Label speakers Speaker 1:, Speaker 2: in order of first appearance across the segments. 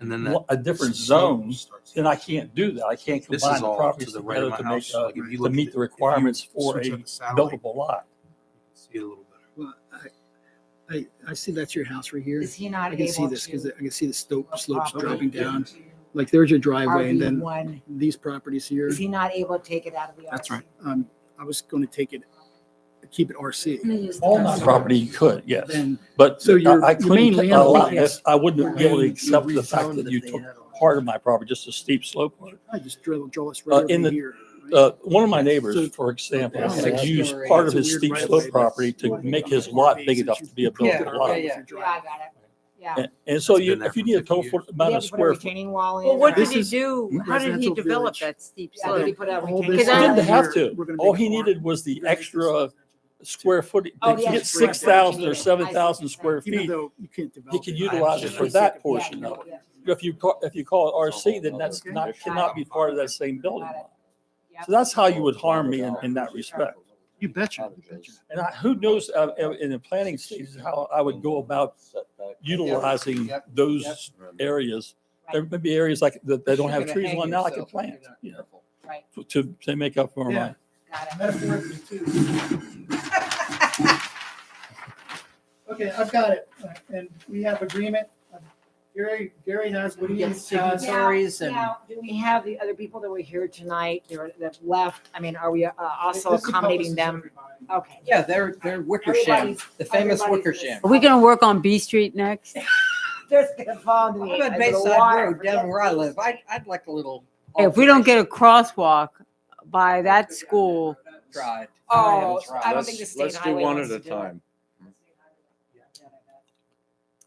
Speaker 1: And then that.
Speaker 2: a different
Speaker 1: slope
Speaker 2: zone,
Speaker 1: starts-
Speaker 2: then I can't do that. I can't
Speaker 1: This
Speaker 2: combine
Speaker 1: is
Speaker 2: the
Speaker 1: all
Speaker 2: properties
Speaker 1: to the right
Speaker 2: together
Speaker 1: of my
Speaker 2: to make,
Speaker 1: house.
Speaker 2: uh,
Speaker 1: Like if you
Speaker 2: to
Speaker 1: look
Speaker 2: meet the
Speaker 1: at it, if you
Speaker 2: requirements for a
Speaker 1: switch on the satellite, you
Speaker 2: buildable lot.
Speaker 1: can See it a little better.
Speaker 3: Well, I, I, I see that's your house right here.
Speaker 4: Is he not
Speaker 3: I can see
Speaker 4: able
Speaker 3: this because
Speaker 4: to?
Speaker 3: I can see the slope, slopes
Speaker 4: properly
Speaker 3: dropping down.
Speaker 4: into
Speaker 3: Like there's your driveway and then
Speaker 4: RV1,
Speaker 3: these properties here.
Speaker 4: is he not able to take it out of the RC?
Speaker 3: That's right. Um, I was going to take it, keep it RC.
Speaker 2: All my property you could, yes,
Speaker 3: Then,
Speaker 2: but
Speaker 3: So your-
Speaker 2: I I
Speaker 3: your main
Speaker 2: couldn't, a
Speaker 3: land
Speaker 2: lot,
Speaker 3: lines-
Speaker 2: I wouldn't be able to
Speaker 3: You
Speaker 2: accept the fact
Speaker 3: refound
Speaker 2: that
Speaker 3: it
Speaker 2: you
Speaker 3: if they
Speaker 2: took
Speaker 3: had all-
Speaker 2: part of my property, just a steep slope.
Speaker 3: I just drill, draw this right
Speaker 2: in
Speaker 3: over
Speaker 2: the-
Speaker 3: here. right?
Speaker 2: Uh, one of my
Speaker 3: So-
Speaker 2: neighbors, for example,
Speaker 3: Yeah,
Speaker 4: Oh,
Speaker 2: had
Speaker 3: that's
Speaker 2: used
Speaker 5: very-
Speaker 2: part of
Speaker 3: that's a
Speaker 2: his
Speaker 3: weird
Speaker 2: steep
Speaker 3: right-of-way,
Speaker 2: slope
Speaker 3: but-
Speaker 2: property to make his lot big enough to be a
Speaker 5: Yeah,
Speaker 2: buildable lot.
Speaker 5: yeah, yeah.
Speaker 4: Yeah, I got it. Yeah.
Speaker 2: And- And so
Speaker 1: It's
Speaker 2: you,
Speaker 1: been there
Speaker 2: if you
Speaker 1: for
Speaker 2: need a
Speaker 1: 50
Speaker 2: total
Speaker 1: years.
Speaker 2: foot-
Speaker 4: He
Speaker 2: amount
Speaker 4: had
Speaker 2: of
Speaker 4: to put a
Speaker 2: square foot.
Speaker 4: retaining wall in.
Speaker 6: Well, what
Speaker 4: right?
Speaker 6: did
Speaker 3: This
Speaker 6: he
Speaker 3: is
Speaker 6: do? How did he
Speaker 3: residential
Speaker 6: develop
Speaker 3: village.
Speaker 6: that steep
Speaker 4: Yeah, but he
Speaker 6: slope?
Speaker 4: put a
Speaker 3: All
Speaker 4: retaining
Speaker 3: this
Speaker 6: Because I-
Speaker 4: wall
Speaker 2: Didn't
Speaker 4: in.
Speaker 2: have
Speaker 3: here,
Speaker 2: to.
Speaker 3: we're gonna
Speaker 2: All
Speaker 3: make
Speaker 2: he
Speaker 3: it more-
Speaker 2: needed was the
Speaker 3: we're gonna make this
Speaker 2: extra square foot,
Speaker 4: Oh,
Speaker 2: to
Speaker 4: yeah,
Speaker 2: get
Speaker 3: it's right there.
Speaker 2: six thousand or
Speaker 4: I see what you're
Speaker 2: seven thousand
Speaker 4: saying.
Speaker 2: square
Speaker 3: Even
Speaker 2: feet.
Speaker 3: though you can't develop.
Speaker 2: He could
Speaker 3: it.
Speaker 2: utilize
Speaker 1: it
Speaker 2: for
Speaker 3: Just
Speaker 2: that
Speaker 3: like-
Speaker 2: portion
Speaker 4: Yeah,
Speaker 2: of
Speaker 4: yeah,
Speaker 2: If you call, if you call it RC, then
Speaker 5: Okay.
Speaker 2: that's not, cannot be part of that same building.
Speaker 4: Got it.
Speaker 2: So that's how you would harm me in, in that respect.
Speaker 3: You betcha, you betcha.
Speaker 2: And I, who knows, uh, in- in the planning stages, how I would go about utilizing
Speaker 5: Yep.
Speaker 2: those areas. There may be areas like, that they don't have trees on now, I can plant, you know,
Speaker 4: Right,
Speaker 2: to, to make up for my.
Speaker 4: got it.
Speaker 5: Metaphorically too.
Speaker 3: Okay, I've got it, and we have agreement. Gary, Gary has what he
Speaker 5: Get
Speaker 3: has.
Speaker 5: signatories uh, and.
Speaker 4: Now, do we have the other people that were here tonight, that were- that left? I mean, are we uh, also
Speaker 3: This
Speaker 4: accommodating
Speaker 3: encompasses
Speaker 4: them?
Speaker 3: everybody.
Speaker 4: Okay.
Speaker 5: Yeah, they're, they're Wickersham,
Speaker 4: Everybody's-
Speaker 5: the famous
Speaker 4: everybody's in this.
Speaker 5: Wickersham.
Speaker 6: Are we gonna work on B Street next?
Speaker 4: There's gonna fall into the.
Speaker 5: I'm at
Speaker 4: into the
Speaker 5: Bayside
Speaker 4: water.
Speaker 5: Road, down where I live. I, I'd like a little.
Speaker 6: If we don't get a crosswalk by that school,
Speaker 5: Tried.
Speaker 4: Oh,
Speaker 5: Tried.
Speaker 4: I don't think the state highway wants to do it.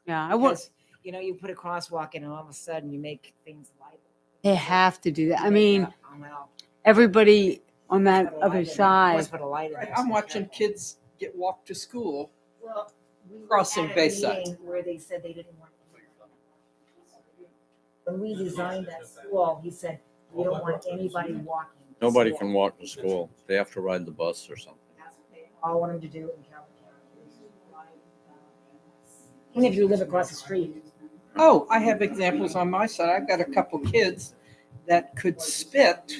Speaker 6: yeah, I want,
Speaker 4: Because, You know, you put a crosswalk in and all of a sudden you make things light.
Speaker 6: they have to do that. I mean,
Speaker 4: Oh, well.
Speaker 6: everybody on that
Speaker 4: Put a light in
Speaker 6: other
Speaker 4: it.
Speaker 6: side.
Speaker 4: Let's put a light in
Speaker 5: Right,
Speaker 4: it.
Speaker 5: I'm watching kids get walked to school.
Speaker 4: Well, we were
Speaker 5: Crossing
Speaker 4: at a
Speaker 5: Bayside.
Speaker 4: meeting Where they said they didn't want. When we designed that school, he said, we don't want anybody walking. to
Speaker 7: Nobody
Speaker 4: school."
Speaker 7: can walk to school. They have to ride the bus or something.
Speaker 4: That's what they all want them to do in Calvin County. Even if you live across the street.
Speaker 5: Oh, I have examples on my side. I've got a couple kids that could spit.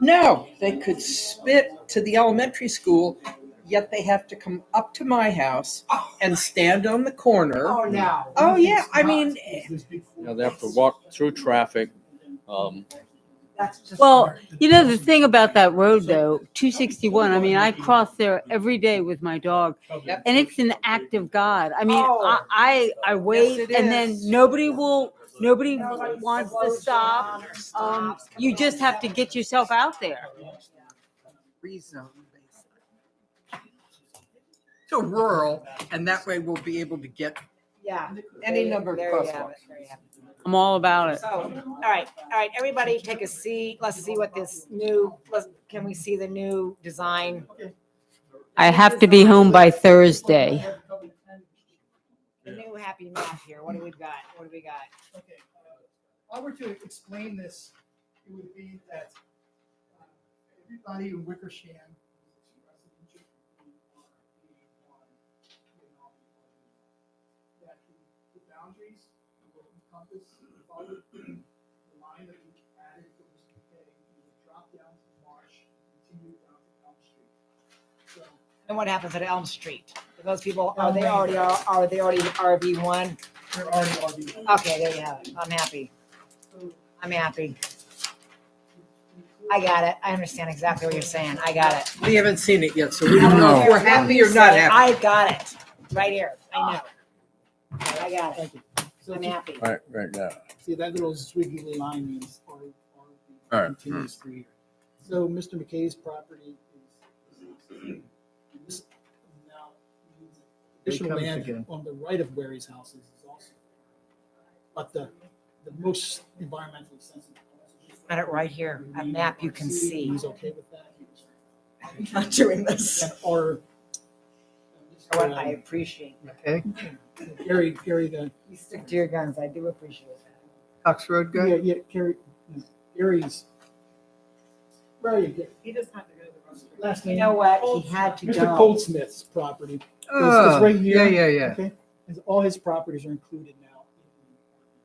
Speaker 5: No, they could spit to the elementary school, yet they have to come up to my house and stand on the corner.
Speaker 4: no.
Speaker 5: Oh, yeah, I mean,
Speaker 7: You know, they have to walk through traffic. Um,
Speaker 4: That's just.
Speaker 6: Well, you know, the thing about that road though, two sixty-one, I mean, I cross there every day with my dog.
Speaker 5: Yep.
Speaker 6: And it's an act of God. I mean, I,
Speaker 4: Oh.
Speaker 6: I, I
Speaker 5: it
Speaker 6: wait and then
Speaker 5: is.
Speaker 6: nobody will, nobody
Speaker 4: Nobody
Speaker 6: wants to
Speaker 4: slows
Speaker 6: stop.
Speaker 4: down or
Speaker 6: Um,
Speaker 4: stops.
Speaker 6: you just have to get yourself out there.
Speaker 5: rezone Bayside to rural, and that way we'll be able to get
Speaker 4: Yeah.
Speaker 5: any
Speaker 4: There-
Speaker 5: number of
Speaker 4: there you have
Speaker 5: crosswalks.
Speaker 4: it, there you have it.
Speaker 6: I'm all about it.
Speaker 4: So, all right, all right, everybody take a seat. Let's see what this new, let's, can we see the new design?
Speaker 6: I have to be home by Thursday.
Speaker 4: The new happy map here. What do we got? What do we got?
Speaker 3: Okay, uh, If I were to explain this, it would be that uh, everybody in Wickersham. that the- the boundaries will encompass the following- the line that we added for this day, we would drop down to Marsh, continue down to Elm Street. So
Speaker 4: And what happens at Elm Street? Are Those people, are they already, are, are they already RV one?
Speaker 3: there are already.
Speaker 4: Okay, there you have it. I'm happy. I'm happy. I got it. I understand exactly what you're saying. I got it.
Speaker 5: We haven't seen it yet, so we don't know
Speaker 4: I
Speaker 5: if
Speaker 4: care
Speaker 5: we're
Speaker 4: what
Speaker 5: happy
Speaker 4: you
Speaker 5: or not
Speaker 4: say.
Speaker 5: happy.
Speaker 4: I got it. Right here. I know. I got it. I'm happy.
Speaker 7: right, right now.
Speaker 3: See, that little squiggly line means all, all
Speaker 7: All
Speaker 3: the
Speaker 7: right. Hmm.
Speaker 3: continues through here. So Mr. McKay's property is. is- this now means Additional
Speaker 2: comes
Speaker 3: land
Speaker 2: again.
Speaker 3: on the right of where his house is is also. But the, the most environmentally sensitive.
Speaker 4: Got it right here. A map you can see.
Speaker 3: He's okay with that.
Speaker 4: Not doing this.
Speaker 3: And um, Or.
Speaker 4: What I appreciate.
Speaker 5: Okay,
Speaker 3: um, Gary, Gary, the
Speaker 4: You stick to your guns. I do appreciate that.
Speaker 5: Cox Road
Speaker 3: Yeah, yeah, Gary, Gary's. Where are you?
Speaker 4: He doesn't have to go to the restaurant.
Speaker 3: Last
Speaker 4: You
Speaker 3: name?
Speaker 4: know what? He had to
Speaker 3: Mr.
Speaker 4: go.
Speaker 3: Goldsmith's property,
Speaker 5: Oh,
Speaker 3: right here.
Speaker 5: yeah, yeah, yeah.
Speaker 3: okay? And all his properties are included now